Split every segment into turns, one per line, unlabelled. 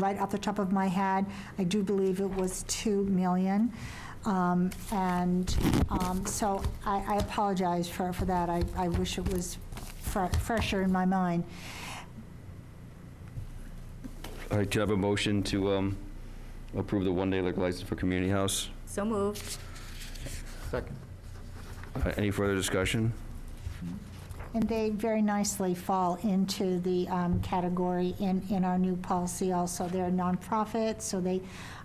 right off the top of my head. I do believe it was 2 million. Um, And um, so I I apologize for, for that. I, I wish it was fre- fresher in my mind.
All right, could I have a motion to um, approve the one-day liquor license for Community House?
So moved.
Second.
Uh, Any further discussion?
And they very nicely fall into the um, category in, in our new policy also. They're a nonprofit, so they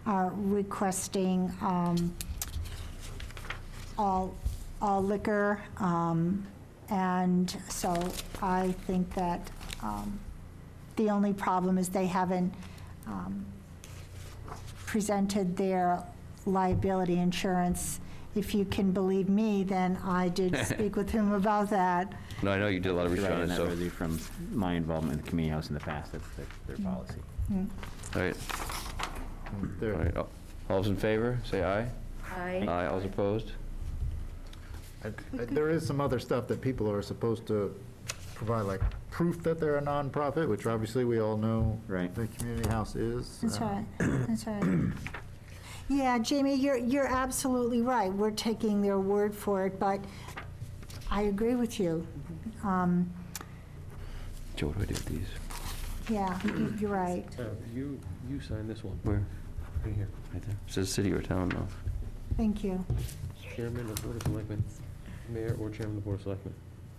are requesting um, all, all liquor. um, And so I think that um, the only problem is they haven't um, presented their liability insurance. If you can believe me, then I did speak with him about that.
No, I know you did a lot of research on
And
it,
that
so.
really from my involvement in the community house in the past, that's their, their
Mm.
policy.
All right, all right. All all's in favor, say aye.
Aye.
Aye, all's opposed?
I- I- There is some other stuff that people are supposed to provide, like proof that they're a nonprofit, which obviously we all know.
Right.
The community house is.
That's
uh,
right, that's right. Yeah, Jamie, you're, you're absolutely right. We're taking their word for it, but I agree with you. Um,
Joe, what do I do with these?
Yeah, you- you're right.
Uh, You, you sign this one,
Where?
right here.
Right there. Says city or town, though.
Thank you.
Chairman of Board of Selectmen, Mayor or Chairman of the Board of Selectmen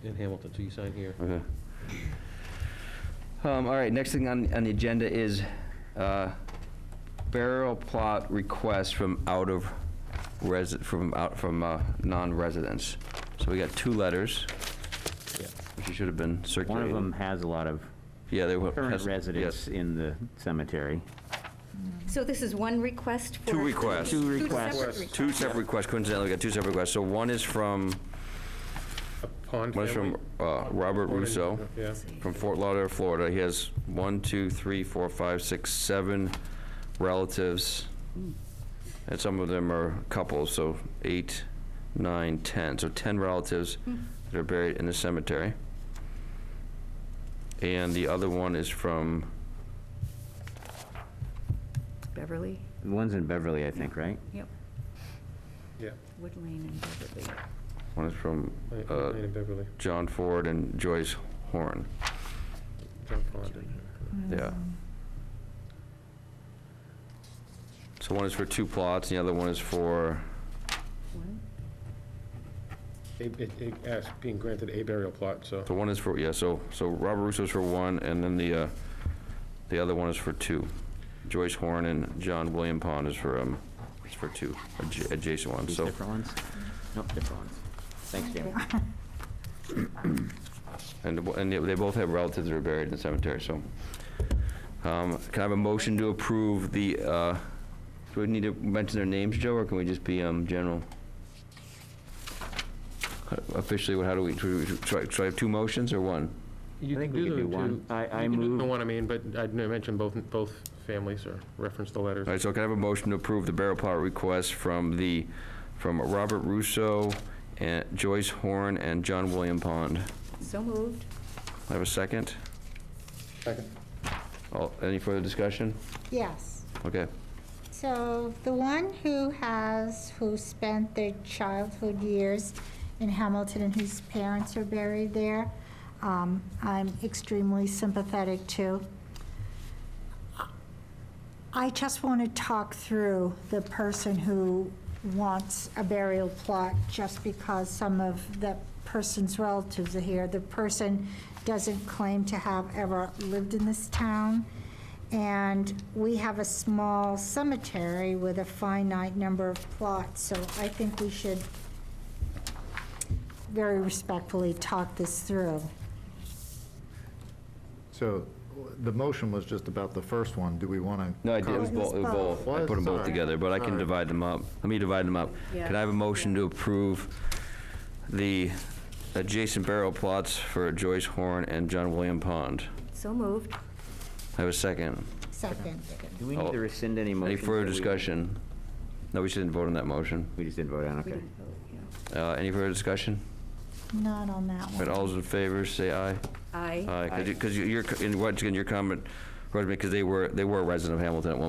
in Hamilton, so you sign here.
Okay. Um, All right, next thing on, on the agenda is uh, burial plot requests from out of resi, from out, from uh, non-residents. So we got two letters, which should have been
One
circulated.
of them has a lot of
Yeah, they were.
current
yes, yes.
residents in the cemetery.
So this is one request for.
Two requests.
Two
Two
requests.
separate requests.
Two separate requests, coincidentally, we got two separate requests. So one is from,
Pond
one is from uh, Robert Russo.
Yeah.
from Fort Lauderdale, Florida. He has one, two, three, four, five, six, seven relatives. And some of them are couples, so eight, nine, ten. So ten relatives
Hmm.
that are buried in the cemetery. And the other one is from,
Beverly,
The one's in Beverly, I think, right?
yep,
Yeah.
Wood Lane and Beverly.
one is from uh,
Lane and Beverly,
John Ford and Joyce Horn.
John Pond.
Yeah. So one is for two plots, and the other one is for,
One?
It, it, it asks, being granted a burial plot, so.
So one is for, yeah, so, so Robert Russo's for one, and then the, uh, the other one is for two. Joyce Horn and John William Pond is for, um, is for two, adj- adjacent ones,
These
so.
different ones? Nope, different ones. Thanks, Jamie.
And, the- and they both have relatives that are buried in the cemetery, so. Um, can I have a motion to approve the, uh, do we need to mention their names, Joe, or can we just be, um, general? Officially, what, how do we, do we- should I, should I have two motions or one?
You
I think
can
we could
the
do one.
two-
I- I
You can do the
move-
one, I mean, but I mentioned both, both families or reference the letters.
All right, so can I have a motion to approve the barrel plot request from the, from Robert Russo, and Joyce Horn, and John William Pond?
So moved.
I have a second?
Second.
All- Any further discussion?
Yes.
Okay.
So the one who has, who spent their childhood years in Hamilton and whose parents are buried there, um, I'm extremely sympathetic to. I just want to talk through the person who wants a burial plot just because some of that person's relatives are here. The person doesn't claim to have ever lived in this town. And we have a small cemetery with a finite number of plots, so I think we should very respectfully talk this through.
So w- the motion was just about the first one. Do we want to?
No, I did, it was both, it was both. I put them both together, but I can
Sorry.
divide them up. Let me divide them up. Can I have a motion to approve the adjacent barrel plots for Joyce Horn and John William Pond?
So moved.
I have a second.
Second.
Do we need to
Oh.
rescind any
Any
motions?
further
that we-
discussion? No, we shouldn't vote on that motion.
We just didn't vote on,
We
okay.
didn't vote, yeah.
Uh, Any further discussion?
Not on that
All right,
one.
all's in favor, say aye.
Aye.
Aye, because you're, in, once again, your comment Rosemary, because they were, they were a resident of Hamilton at one